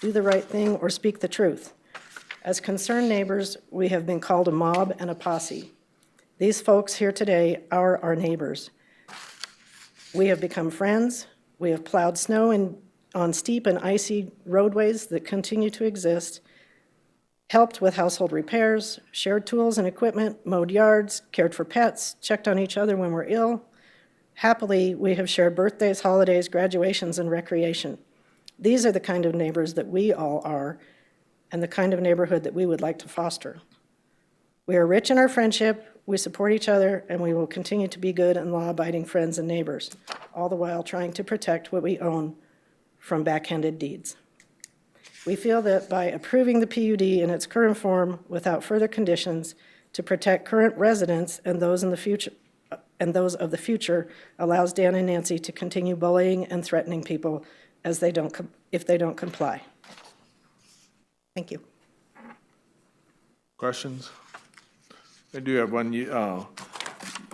do the right thing, or speak the truth. As concerned neighbors, we have been called a mob and a posse. These folks here today are our neighbors. We have become friends. We have plowed snow in, on steep and icy roadways that continue to exist, helped with household repairs, shared tools and equipment, mowed yards, cared for pets, checked on each other when we're ill. Happily, we have shared birthdays, holidays, graduations, and recreation. These are the kind of neighbors that we all are, and the kind of neighborhood that we would like to foster. We are rich in our friendship, we support each other, and we will continue to be good and law-abiding friends and neighbors, all the while trying to protect what we own from backhanded deeds. We feel that by approving the PUD in its current form without further conditions to protect current residents and those in the future, and those of the future allows Dan and Nancy to continue bullying and threatening people as they don't, com- if they don't comply. Thank you. Questions? I do have one. You uh,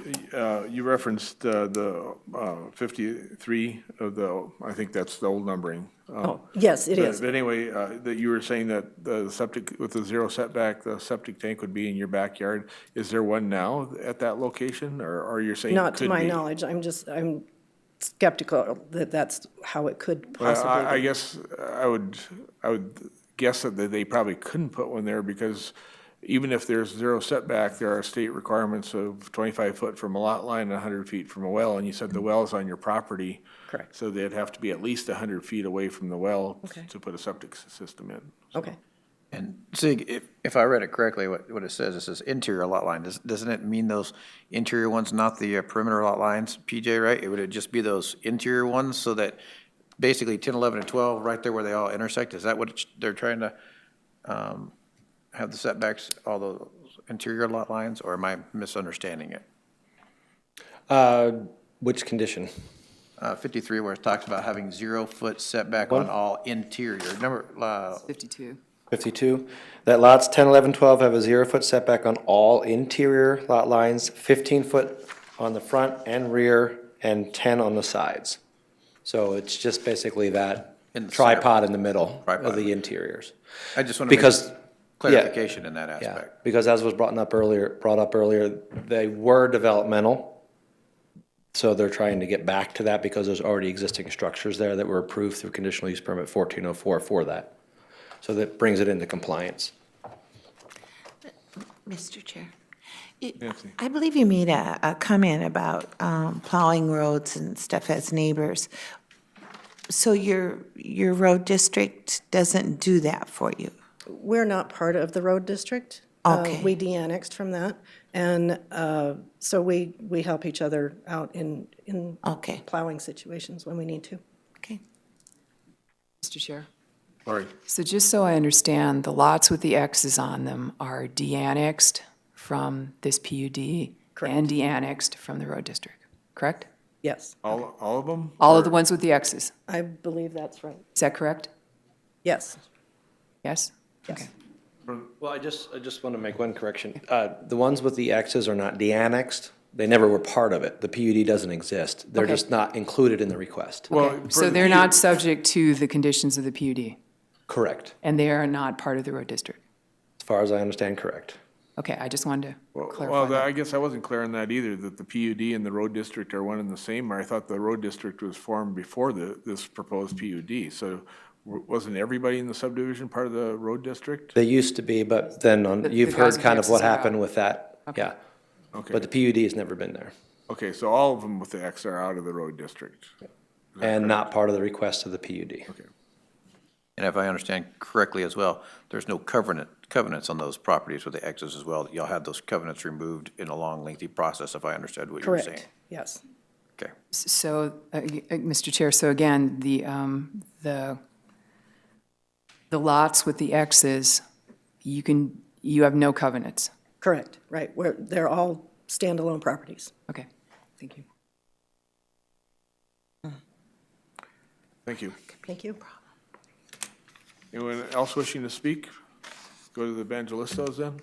y- uh, you referenced uh, the uh, 53 of the, I think that's the old numbering. Oh, Yes, it is. But anyway, uh, that you were saying that the septic, with the zero setback, the septic tank would be in your backyard. Is there one now at that location, or are you saying? it Not to could my be? knowledge, I'm just, I'm skeptical that that's how it could Well, possibly I, I be. guess I would, I would guess that they probably couldn't put one there because even if there's zero setback, there are state requirements of twenty-five foot from a lot line and hundred feet from a well, and you said the well is on your property. Mm-hmm. Correct. So they'd have to be at least hundred feet away from the well Okay. to put a septic s- system in. Okay. And Zig, if, if I read it correctly, what, what it says, it says interior lot line. Does- Doesn't it mean those interior ones, not the uh, perimeter lot lines, PJ, right? It would just be those interior ones so that basically 10, 11, and 12, right there where they all intersect? Is that what it's- they're trying to um, have the setbacks, all those interior lot lines? Or am I misunderstanding it? Uh, Which condition? Uh, 53, where it talks about having zero-foot setback on all interior, number, uh, 52. 52, that lots 10, 11, 12 have a zero-foot setback on all interior lot lines, 15-foot on the front and rear, and 10 on the sides. So it's just basically that In the center. tripod in the middle Tripod. of the interiors. I just want to Because, make clarification in that yeah, aspect. because as was brought up earlier, brought up earlier, they were developmental, so they're trying to get back to that because there's already existing structures there that were approved through conditional use permit 1404 for that. So that brings it into compliance. Mr. Chair. it- Nancy. I believe you made a, a comment about um, plowing roads and stuff as neighbors. So your, your road district doesn't do that for you? We're not part of the road district. Uh, Okay. We de-annexed from that, and uh, so we, we help each other out in, in Okay, plowing situations when we need to. okay. Mr. Chair. Lori, So just so I understand, the lots with the X's on them are de-annexed from this PUD and de-annexed from the road district, correct? Yes, all, all of them? All of the ones with the X's, I believe that's right. is that correct? Yes. Yes? Yes. Well, I just, I just want to make one correction. Uh, The ones with the Xs are not de-annexed. They never were part of it. The PUD doesn't exist. They're Okay. just not included in the request. Well, for So the they're P- not subject to the conditions of the PUD, Correct, and they are not part of the road district? as far as I understand, correct. Okay, I just wanted to Well, clarify Well, I that. guess I wasn't clear on that either, that the PUD and the road district are one and the same, or I thought the road district was formed before the, this proposed PUD. So w- wasn't everybody in the subdivision part of the road district? They used to be, but then on, the you've heard Gaza kind of Xs what are out. happened with that. Yeah. Okay, But the PUD has never been there okay, so all of them with the X are out of the road district. and not part of the request of the PUD. Okay. And if I understand correctly as well, there's no covenant, covenants on those properties with the X's as well. Y'all had those covenants removed in a long lengthy process, if I understood what you were saying. Correct, yes. Okay. So, uh, y- uh, Mr. Chair, so again, the, um, the, the lots with the X's, you can, you have no covenants. Correct, right. We're, they're all standalone properties. Okay, thank you. Thank you. Thank you. Anyone else wishing to speak? Go to the evangelistos then.